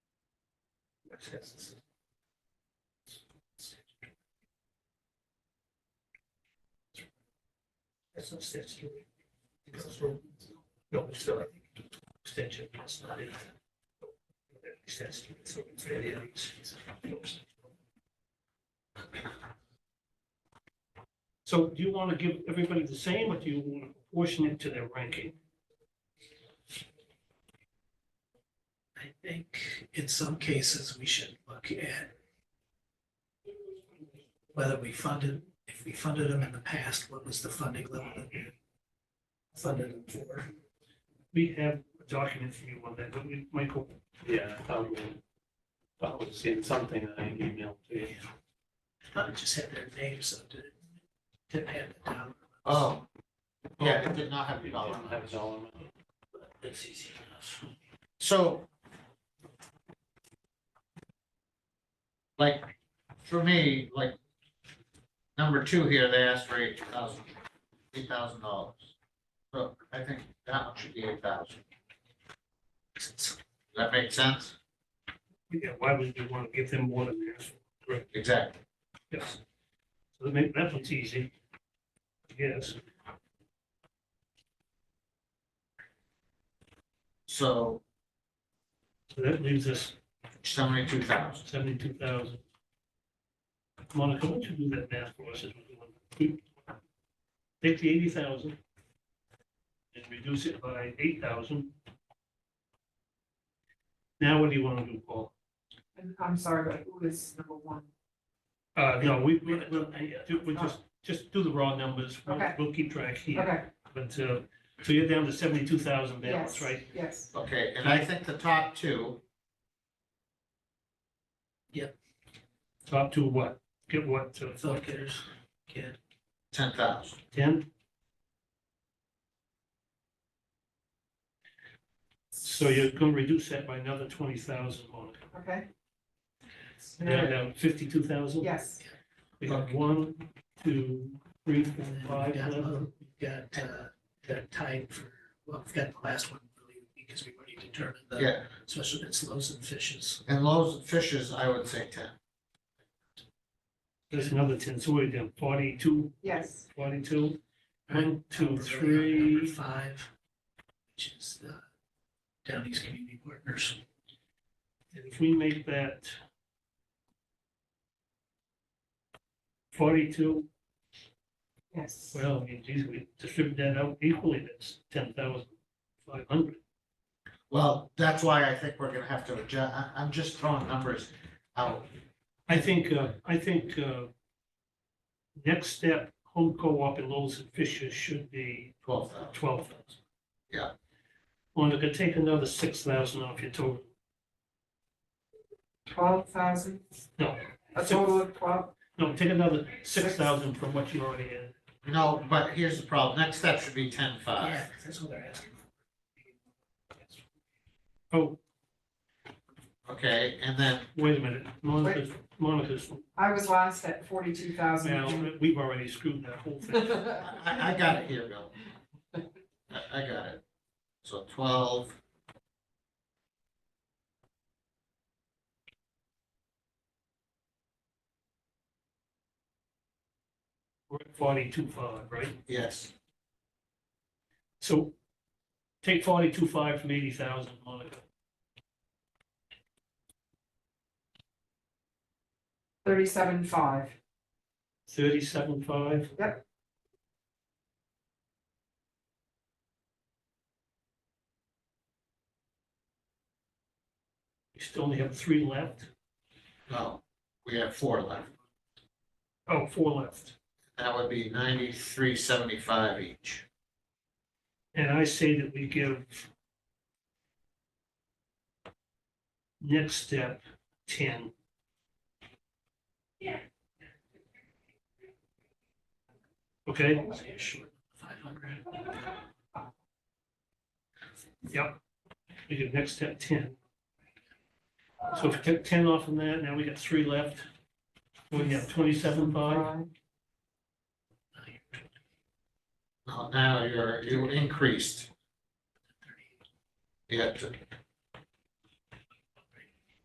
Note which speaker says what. Speaker 1: That's not statutory. It comes from, no, it's still, I think, extension, that's not it. Statutory, so it's very, uh, it's- it's- So do you want to give everybody the same, or do you want to proportion it to their ranking?
Speaker 2: I think in some cases, we should look at whether we funded, if we funded them in the past, what was the funding level that we funded them for?
Speaker 1: We have a document for you on that, don't we, Michael?
Speaker 3: Yeah, I thought we, thought we'd seen something that I emailed to you.
Speaker 2: Not just had their names, so did, didn't have the dollar.
Speaker 4: Oh, yeah, it did not have the dollar
Speaker 3: Didn't
Speaker 4: amount.
Speaker 3: have a dollar amount.
Speaker 2: That's easy enough.
Speaker 4: So. Like, for me, like, number two here, they asked for eight thousand, eight thousand dollars. So I think that one should be eight thousand. Does that make sense?
Speaker 1: Yeah, why would you want to give them more than they asked for? Correct,
Speaker 4: Exactly.
Speaker 1: yes. So that ma- that one's easy. Yes,
Speaker 4: So
Speaker 1: so that leaves us
Speaker 4: seventy-two thousand.
Speaker 1: seventy-two thousand. Monica, why don't you do that math for us? as we go on? Take the eighty thousand and reduce it by eight thousand. Now what do you want to do, Paul?
Speaker 5: And I'm sorry, but who is number one?
Speaker 1: Uh, no, we, we, we'll, do- we'll just, just do the raw numbers. We'll-
Speaker 5: Okay.
Speaker 1: We'll keep track here,
Speaker 5: Okay,
Speaker 1: but, uh, so you're down to seventy-two thousand
Speaker 5: yes,
Speaker 1: balance, right?
Speaker 5: yes.
Speaker 4: Okay, and I think the top two,
Speaker 1: Top to what? Get what, uh,
Speaker 2: Vote getters, kid,
Speaker 4: ten thousand.
Speaker 1: ten? So you're gonna reduce that by another twenty thousand, Monica.
Speaker 5: Okay.
Speaker 1: Now, down fifty-two thousand?
Speaker 5: Yes,
Speaker 1: We have one, two, three, four,
Speaker 2: and then
Speaker 1: five,
Speaker 2: we've got,
Speaker 1: eleven.
Speaker 2: low- we've got, uh, got tied for, well, we've got the last one really, because we've already determined the
Speaker 4: Yeah,
Speaker 2: special bits, loaves and fishes.
Speaker 4: and Lowe's and Fishes, I would say ten.
Speaker 1: There's another ten, so we're down forty-two,
Speaker 5: yes,
Speaker 1: forty-two. One, two,
Speaker 2: We're really on Number
Speaker 1: three,
Speaker 2: five, which is the Downey's Community Partners.
Speaker 1: And if we make that forty-two,
Speaker 5: yes.
Speaker 1: well, I mean, geez, we distribute that out equally, that's ten thousand five hundred.
Speaker 4: Well, that's why I think we're gonna have to adjust. I, I'm just throwing numbers out.
Speaker 1: I think, uh, I think, uh, next step, home co-op in Lowell's and Fisher's should be
Speaker 4: Twelve thousand.
Speaker 1: twelve thousand.
Speaker 4: Yeah.
Speaker 1: Monica, take another six thousand off your total,
Speaker 5: Twelve thousand,
Speaker 1: no,
Speaker 5: a total of twelve,
Speaker 1: no, take another six thousand from what you already had.
Speaker 4: No, but here's the problem. Next step should be ten five.
Speaker 2: Yeah, that's what they're asking.
Speaker 1: Oh,
Speaker 4: Okay, and then,
Speaker 1: wait a minute, Monica's, Monica's,
Speaker 5: I was last at forty-two thousand.
Speaker 1: well, we've already screwed that whole thing.
Speaker 4: I, I got it here, Bill. I, I got it. So twelve.
Speaker 1: We're at forty-two five, right?
Speaker 4: Yes,
Speaker 1: So take forty-two five from eighty thousand, Monica.
Speaker 5: Thirty-seven five,
Speaker 1: Thirty-seven five?
Speaker 5: Yep.
Speaker 1: We still only have three left?
Speaker 4: no, we have four left.
Speaker 1: Oh, four left.
Speaker 4: That would be ninety-three seventy-five each.
Speaker 1: And I say that we give next step ten. Yeah. Okay?
Speaker 2: Five hundred,
Speaker 1: Yep. We did next step ten. So if we took ten off from that, now we got three left. We have twenty-seven five,
Speaker 5: five,
Speaker 4: Now- Now you're, you increased.
Speaker 2: thirty,
Speaker 4: You have to